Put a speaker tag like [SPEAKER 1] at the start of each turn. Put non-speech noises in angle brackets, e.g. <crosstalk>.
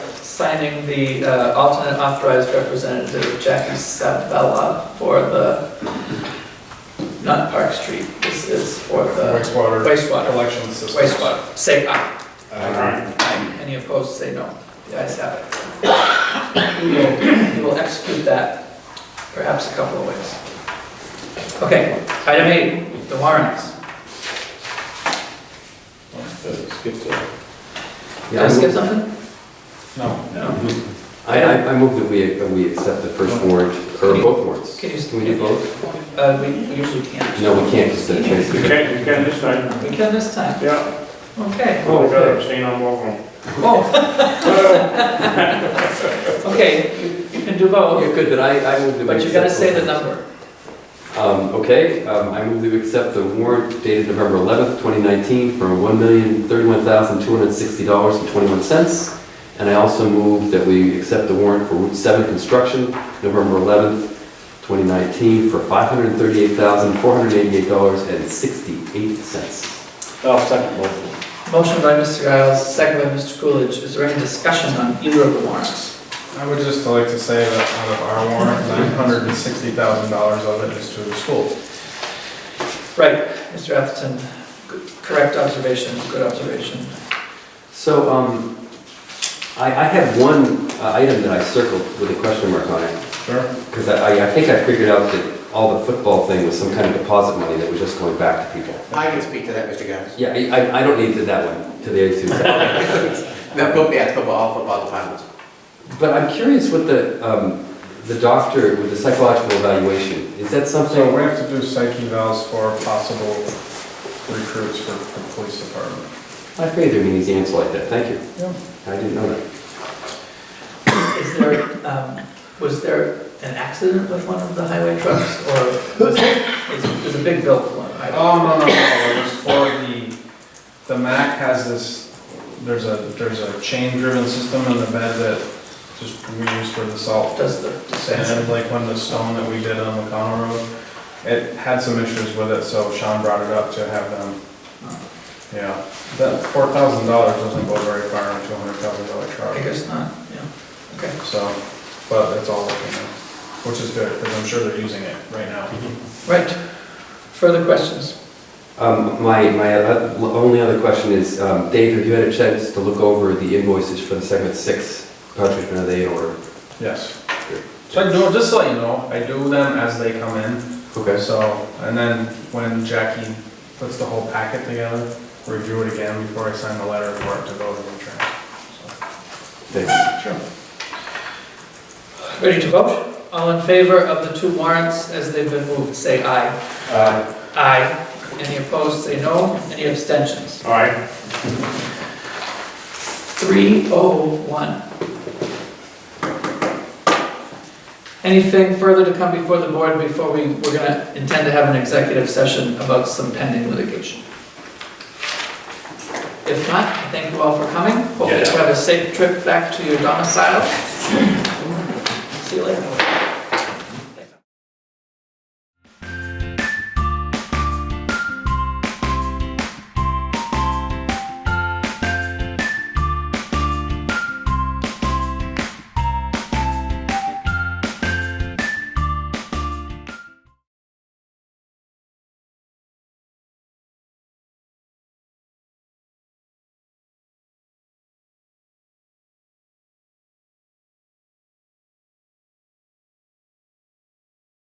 [SPEAKER 1] signing the uh, alternate authorized representative Jackie Sabella for the, not Park Street, this is for the
[SPEAKER 2] Wastewater
[SPEAKER 1] wastewater,
[SPEAKER 2] collection system.
[SPEAKER 1] wastewater. Say aye.
[SPEAKER 2] Aye.
[SPEAKER 1] Aye. Any opposed, say no. The ayes have it. We will, we will execute that perhaps a couple of ways. Okay, item eight, the warrants.
[SPEAKER 3] Skip to.
[SPEAKER 1] Did I skip something?
[SPEAKER 2] No.
[SPEAKER 1] No.
[SPEAKER 3] I, I, I move that we, that we accept the first warrant, or both warrants.
[SPEAKER 1] Can you-
[SPEAKER 3] Can we do both?
[SPEAKER 1] Uh, we we usually can't.
[SPEAKER 3] No, we can't, just a
[SPEAKER 4] You
[SPEAKER 3] transfer.
[SPEAKER 4] can, you can this time.
[SPEAKER 1] We can this time,
[SPEAKER 4] Yeah,
[SPEAKER 1] okay.
[SPEAKER 4] I gotta abstain on both of them.
[SPEAKER 1] Oh. <laughs> Okay, you- you can do both,
[SPEAKER 3] Yeah, Oh, good, but I, I move that we.
[SPEAKER 1] but you gotta
[SPEAKER 3] accept
[SPEAKER 1] say the
[SPEAKER 3] both.
[SPEAKER 1] number.
[SPEAKER 3] Um, okay, um, I move that we accept the warrant dated November eleventh, twenty nineteen for one million, thirty-one thousand, two hundred and sixty dollars and twenty-one cents. And I also move that we accept the warrant for Route Seven Construction, November eleventh, twenty nineteen for five hundred and thirty-eight thousand, four hundred and eighty-eight dollars and sixty-eight cents.
[SPEAKER 4] I'll second both of them.
[SPEAKER 1] Motion by Mr. Giles, second by Mr. Coolidge, is there any discussion on either of the warrants?
[SPEAKER 2] I would just like to say that out of our warrant, nine hundred and sixty thousand dollars of it is to the schools.
[SPEAKER 1] Right, Mr. Atherton, good- correct observation, good observation.
[SPEAKER 3] So, um, I, I had one uh, item that I circled with a question mark on it.
[SPEAKER 2] Sure.
[SPEAKER 3] Because I, I think I figured out that all the football thing was some kind of deposit money that was just going back to people.
[SPEAKER 5] I can speak to that, Mr. <laughs> Gaddis.
[SPEAKER 3] Yeah, I, I- I don't need to that one, to the A2.
[SPEAKER 5] No, go back to all football departments.
[SPEAKER 3] <laughs> But I'm curious what the, um, the doctor, with the psychological evaluation, is that
[SPEAKER 2] So
[SPEAKER 3] something?
[SPEAKER 2] we have to do psych evals for possible recruits for the police department.
[SPEAKER 3] I figured there'd be an easy answer like that, thank you.
[SPEAKER 2] Yeah.
[SPEAKER 3] I didn't know that.
[SPEAKER 1] Is there, um, was there an accident with one of the highway trucks, or was it, is- is a big bill for one? I-
[SPEAKER 2] Oh, no, no, no, it was for the, the MAC has this, there's a, there's a chain-driven system in the bed that just we use for the salt
[SPEAKER 1] Does the,
[SPEAKER 2] sand, like when the stone that we did on McConnell Road, it had some issues with it, so Sean brought it up to have them, yeah. That four thousand dollars doesn't go very far on a two hundred thousand dollar
[SPEAKER 1] I
[SPEAKER 2] truck,
[SPEAKER 1] guess not, yeah, okay.
[SPEAKER 2] so, but it's all working now, which is good, because I'm sure they're using it right now.
[SPEAKER 1] Right, further questions?
[SPEAKER 3] Um, my, my uh, only other question is, um, Dave, have you had a chance to look over the invoices for the segment six cartridge bin they order?
[SPEAKER 2] Yes. Mm-hmm. So I do, just so you know, I do them as they come in,
[SPEAKER 3] Okay.
[SPEAKER 2] so, and then when Jackie puts the whole packet together, review it again before I sign the letter for it to go to the insurance.
[SPEAKER 3] Thanks.
[SPEAKER 2] Sure.
[SPEAKER 1] Ready to vote? All in favor of the two warrants as they've been moved, say aye.
[SPEAKER 2] Um,
[SPEAKER 1] Aye. Any opposed, say no. Any abstentions?
[SPEAKER 4] All right,
[SPEAKER 1] 301. Anything further to come before the board before we, we're gonna intend to have an executive session about some pending litigation? If not, thank you all for coming. Hope you have a safe trip back to your domicile. See you later.